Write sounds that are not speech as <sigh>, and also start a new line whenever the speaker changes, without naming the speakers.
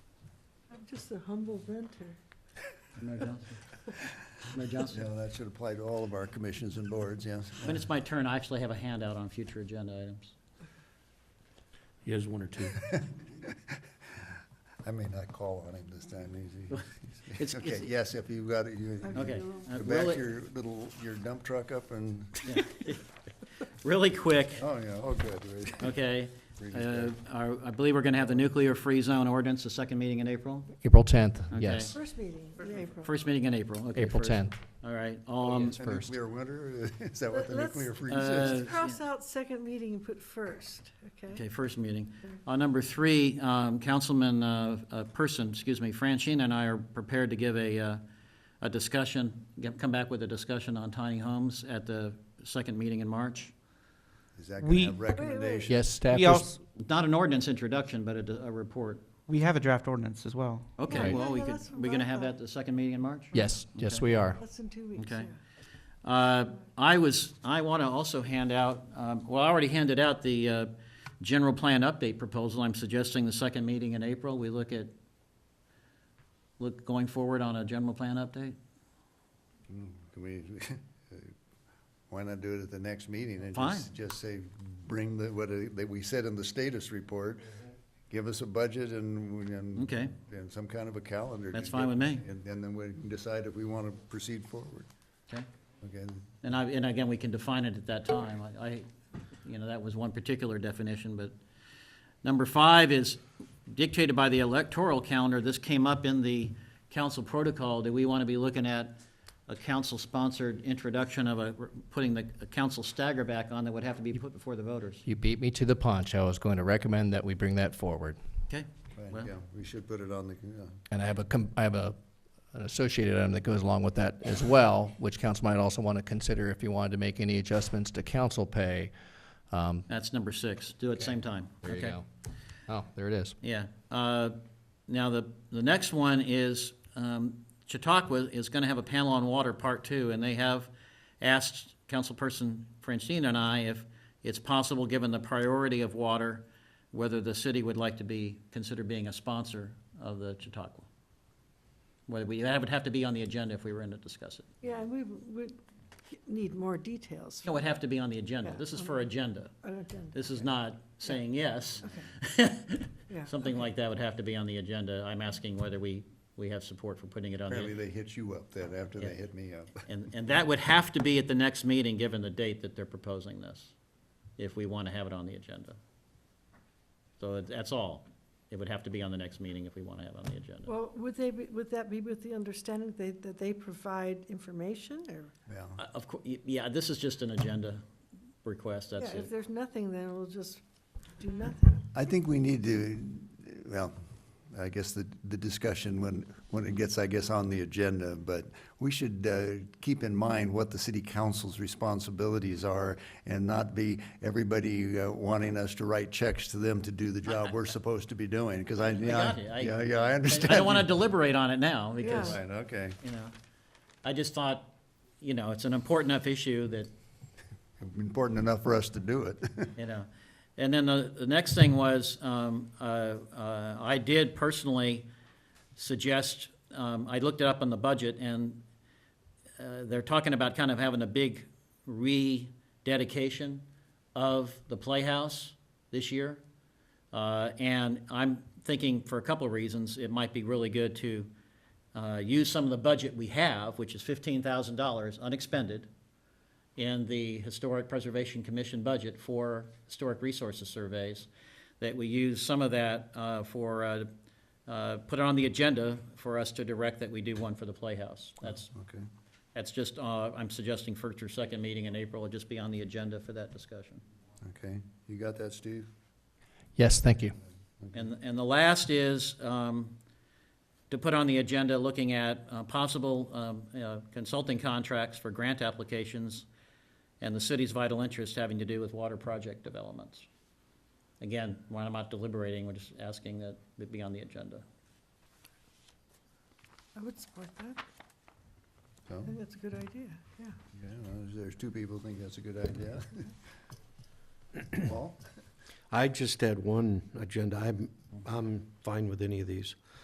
Just a humble renter.
Mayor Johnson? Mayor Johnson?
Yeah, that should apply to all of our commissions and boards, yes.
When it's my turn, I actually have a handout on future agenda items.
He has one or two.
I may not call on him this time, he's-
<laughs> It's-
he's, okay,
it's-
yes, if you've got it, you,
Okay.
go
uh,
back
really-
your little, your dump truck up and,
yeah. Really quick,
oh, yeah, oh, good.
<laughs>
right.
okay.
Read it
Uh,
there.
our- I believe we're going to have the nuclear free zone ordinance, the second meeting in April?
April 10th,
Okay.
yes.
First meeting in April.
First meeting in April, okay.
April
first.
10th.
All right. Um,
A
first.
Nuclear winter, <laughs> is that what the
Let's-
nuclear freeze
Uh,
is?
Let's cross out second meeting and put first, okay?
Okay, first meeting. On number three, um, Councilman uh, uh, Person, excuse me, Francine and I are prepared to give a, uh, a discussion, get- come back with a discussion on tiny homes at the second meeting in March.
Is that gonna
We-
have
wait.
recommendations?
Yes, staff
We
is,
also,
Not an ordinance introduction, but a, a report.
we have a draft ordinance as well.
Okay,
Right.
well, we
Yeah,
could,
that's what
we're gonna
I
have that
thought.
the second meeting in March?
yes, yes,
Okay.
we are.
That's in two weeks, yeah.
Okay. Uh, I was, I want to also hand out, um, well, I already handed out the uh, general plan update proposal. I'm suggesting the second meeting in April, we look at, look going forward on a general plan update.
Hmm, Can we, <laughs> uh, why not do it at the next meeting and
Fine.
just, just say, bring the, what, uh, that we said in the status report, give us a budget and, and.
Okay.
And some kind of a calendar. to
That's fine
get-
with me.
And, and then we can decide if we want to proceed forward,
Okay.
okay?
And I, and again, we can define it at that time. I- I, you know, that was one particular definition, but number five is dictated by the electoral calendar. This came up in the council protocol. Do we want to be looking at a council-sponsored introduction of a, putting the a council stagger back on that would have to be put before the voters?
You beat me to the punch. I was going to recommend that we bring that forward.
Okay?
Fine,
Well-
yeah, we should put it on the, uh, yeah.
And I have a, com- I have a, an associated item that goes along with that as well, which council might also want to consider if you wanted to make any adjustments to council pay. Um,
That's number six. Do it same time.
There you
Okay.
go. Oh, there it is.
Yeah. Uh, Now, the, the next one is, um, Chautauqua is going to have a panel on water, part two, and they have asked Councilperson Francine and I if it's possible, given the priority of water, whether the city would like to be, consider being a sponsor of the Chautauqua. Whether we, that would have to be on the agenda if we were going to discuss it.
Yeah, and we would need more details.
No, it would have to be on the agenda. This is for agenda.
on agenda.
This is not saying yes. <laughs>
Yeah.
Something like that would have to be on the agenda. I'm asking whether we, we have support for putting it on
Apparently
the,
they hit you up then, after
Yeah.
they hit me up. <laughs>
and, and that would have to be at the next meeting, given the date that they're proposing this, if we want to have it on the agenda. So it- that's all. It would have to be on the next meeting if we want to have it on the agenda.
Well, would they, be- would that be with the understanding they- that they provide information or?
Yeah,
Uh, Of cour, y- yeah, this is just an agenda request, that's
Yeah, if
it.
there's nothing, then we'll just do nothing.
I think we need to, well, I guess the, the discussion when, when it gets, I guess, on the agenda, but we should uh, keep in mind what the city council's responsibilities are and not be everybody uh, wanting us to write checks to them to do the job
<laughs>
we're supposed to be doing, because I, yeah,
got you. I-
yeah, yeah, I
I
understand.
I don't want to deliberate on it now, because
Yeah.
<laughs> Right, okay.
you know. I just thought, you know, it's an important enough issue that,
Important enough for us to do it. <laughs>
you know. And then the, the next thing was, um, uh, uh, I did personally suggest, um, I looked it up on the budget and, uh, they're talking about kind of having a big rededication of the Playhouse this year. Uh, and I'm thinking for a couple of reasons, it might be really good to, uh, use some of the budget we have, which is fifteen thousand dollars unexpended in the Historic Preservation Commission budget for historic resources surveys, that we use some of that uh, for, uh, uh, put it on the agenda for us to direct that we do one for the Playhouse. That's,
Okay.
that's just, uh, I'm suggesting first or second meeting in April, it'll just be on the agenda for that discussion.
Okay, you got that, Steve?
Yes, thank you.
And, and the last is um, to put on the agenda, looking at uh, possible um, uh, consulting contracts for grant applications and the city's vital interest having to do with water project developments. Again, when I'm not deliberating, we're just asking that it be on the agenda.
I would support that.
So,
I think that's a good idea, yeah.
yeah, there's two people think that's a good <laughs> idea. Paul?
I just had one agenda. I'm, I'm fine with any of these.